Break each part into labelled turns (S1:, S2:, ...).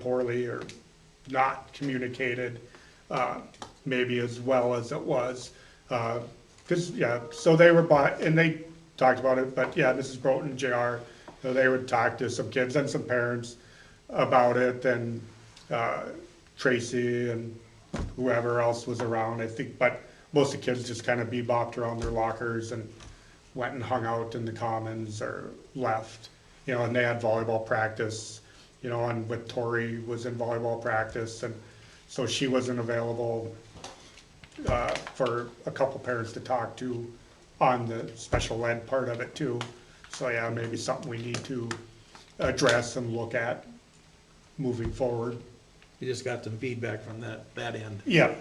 S1: poorly or not communicated, uh, maybe as well as it was. Uh, Cause, yeah, so they were by, and they talked about it, but yeah, Mrs. Broughton, JR, you know, they would talk to some kids and some parents about it and, uh, Tracy and whoever else was around, I think, but most of the kids just kind of bebopped around their lockers and went and hung out in the commons or left, you know, and they had volleyball practice, you know, and with Tori was in volleyball practice, and so she wasn't available uh, for a couple parents to talk to on the special ed part of it too. So yeah, maybe something we need to address and look at moving forward.
S2: You just got some feedback from that, that end.
S1: Yeah,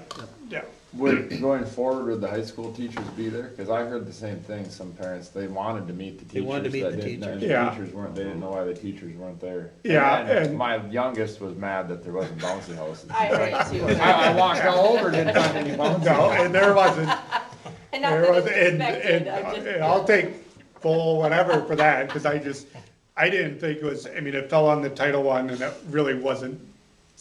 S1: yeah.
S3: Would, going forward, would the high school teachers be there? Cause I heard the same thing, some parents, they wanted to meet the teachers.
S2: They wanted to meet
S3: that
S2: the
S3: didn't- and
S1: teachers. Yeah.
S3: The teachers weren't, they didn't know why the teachers weren't there.
S1: Yeah,
S3: And then
S1: and-
S3: My youngest was mad that there wasn't bouncy houses.
S4: I heard you.
S3: I, I walked all over, didn't find any bouncy.
S1: No, and there wasn't,
S4: And not
S1: there
S4: that
S1: was,
S4: it's
S1: and,
S4: expected,
S1: and,
S4: I just.
S1: and I'll take full whatever for that, cause I just, I didn't think it was, I mean, it fell on the Title One and it really wasn't,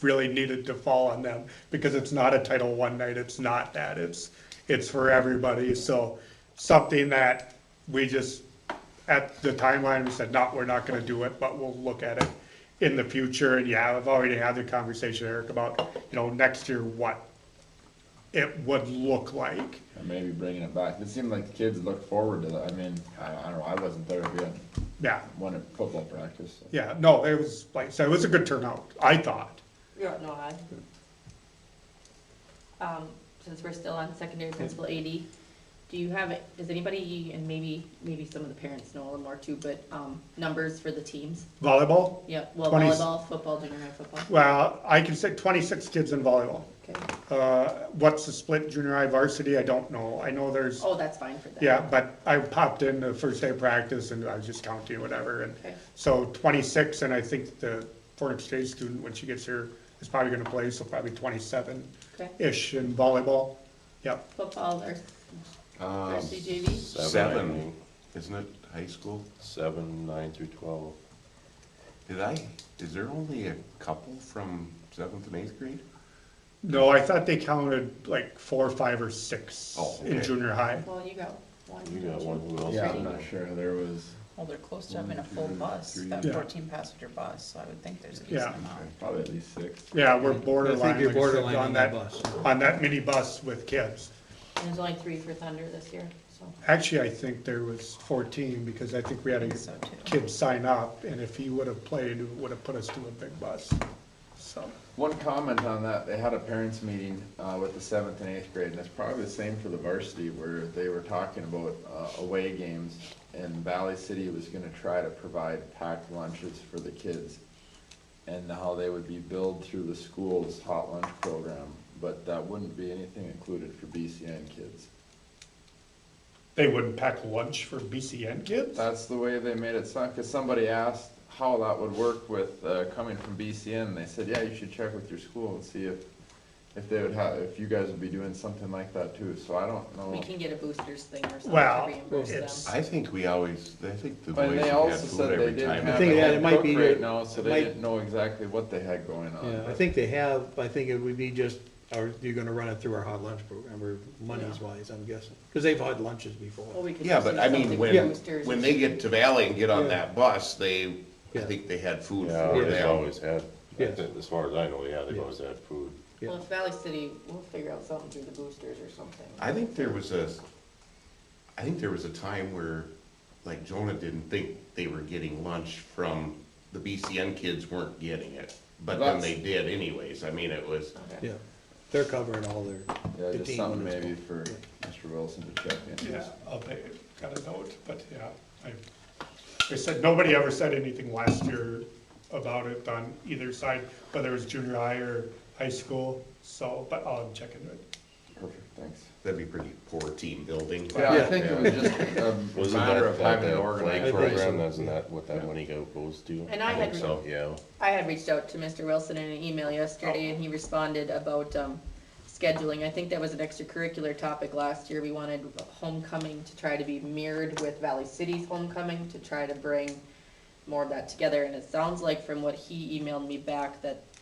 S1: really needed to fall on them, because it's not a Title One night, it's not that, it's, it's for everybody, so something that we just, at the timeline, we said, no, we're not gonna do it, but we'll look at it in the future, and yeah, I've already had the conversation, Eric, about, you know, next year, what it would look like.
S3: Or Maybe bringing it back. It seemed like the kids looked forward to that. I mean, I, I don't know, I wasn't there if we had,
S1: Yeah,
S3: one at football practice. so.
S1: yeah, no, it was, like I said, it was a good turnout, I thought.
S4: Yeah, no, I. Um, since we're still on secondary principal AD, do you have, does anybody, and maybe, maybe some of the parents know a little more too, but, um, numbers for the teams?
S1: Volleyball,
S4: Yeah, well,
S1: 20
S4: volleyball, football, junior high football,
S1: well, I can say twenty-six kids in volleyball.
S4: okay.
S1: Uh, what's the split junior high varsity, I don't know, I know there's,
S4: Oh, that's fine for them.
S1: yeah, but I popped in the first day of practice and I was just counting whatever, and
S4: Okay.
S1: so twenty-six, and I think the foreign exchange student, when she gets here, is probably gonna play, so probably twenty-seven-ish
S4: Okay,
S1: in volleyball, yep.
S4: football or
S5: Um,
S4: varsity JV?
S5: Seven, I
S6: Seven,
S5: think.
S6: isn't it high school?
S5: seven, nine through twelve.
S6: Did I, is there only a couple from seventh and eighth grade?
S1: No, I thought they counted like four, five, or six
S6: Oh,
S1: in
S6: okay.
S1: junior high.
S4: Well, you got one.
S5: You got one, who else?
S3: Yeah,
S5: is
S3: I'm
S5: there?
S3: not sure. There was
S7: Well, they're close to having a full bus, that
S1: Yeah.
S7: fourteen passenger bus, so I would think there's a
S1: Yeah.
S7: decent amount.
S3: probably at least six.
S1: Yeah, we're
S2: I
S1: borderline.
S2: think you're
S1: like I said,
S2: borderline on that bus.
S1: On that mini bus with kids.
S4: And there's only three for Thunder this year, so.
S1: Actually, I think there was fourteen, because I think we had a
S7: think so, too.
S1: kid sign up, and if he would have played, it would have put us to a big bus, so.
S3: One comment on that, they had a parents meeting, uh, with the seventh and eighth grade, and it's probably the same for the varsity, where they were talking about, uh, away games, and Valley City was gonna try to provide packed lunches for the kids, and how they would be billed through the school's hot lunch program, but that wouldn't be anything included for BCN kids.
S1: They wouldn't pack lunch for BCN kids?
S3: That's the way they made it sound, because somebody asked how that would work with, uh, coming from BCN, and they said, yeah, you should check with your school and see if, if they would have, if you guys would be doing something like that too, so I don't
S4: We
S6: Oh.
S3: know.
S4: can get a boosters thing or something to
S1: Well,
S4: reimburse them.
S1: it's,
S6: I think we always, I think the boys
S3: And
S6: we
S3: they
S6: had
S3: also
S6: food
S3: said they
S6: every
S3: didn't
S6: time.
S3: have a
S2: I think that it
S3: head
S2: might
S3: cook
S2: be-
S3: right now, so they
S2: might-
S3: didn't know exactly what they had going on.
S2: Yeah, I
S3: but-
S2: think they have, I think it would be just, or you're gonna run it through our hot lunch program, or monies wise, I'm guessing, because they've had lunches
S4: Well,
S2: before.
S4: we could
S6: Yeah,
S4: just
S6: but
S4: do
S6: I mean,
S4: something
S6: when,
S4: with boosters
S6: when
S4: and
S6: they get to Valley and get on that bus, they, I
S2: Yeah.
S6: think they had food
S5: Yeah,
S6: for
S5: they've
S6: them.
S5: always had,
S2: Yes.
S5: as far as I know, yeah, they've
S2: Yeah.
S5: always had food.
S2: Yeah.
S4: Well, if Valley City, we'll figure out something through the boosters or something.
S6: I think there was a, I think there was a time where, like Jonah didn't think they were getting lunch from, the BCN kids weren't getting it. But then
S3: That's-
S6: they did anyways, I mean, it was,
S4: Okay.
S2: Yeah, they're covering all their,
S3: Yeah,
S2: the
S3: just
S2: team
S3: something
S2: when it's
S3: maybe
S2: going.
S3: for Mr. Wilson to check in.
S1: yeah, I'll pay, got a note, but yeah. I They said, nobody ever said anything last year about it on either side, whether it was junior high or high school, so, but I'll check into it.
S3: Perfect, thanks.
S6: that'd be pretty poor team building.
S3: Yeah, I
S2: Yeah.
S3: think it was just a
S5: Wasn't
S3: matter
S5: that,
S3: of
S5: that,
S3: having it
S5: that
S3: organized.
S5: flag
S2: I think so.
S5: program, isn't that what that money go, goes to?
S4: And I
S5: I think
S4: had-
S5: so, yeah.
S4: I had reached out to Mr. Wilson in an email yesterday and he responded about, um, scheduling. I think that was an extracurricular topic last year. We wanted homecoming to try to be mirrored with Valley City's homecoming to try to bring more of that together. And it sounds like from what he emailed me back that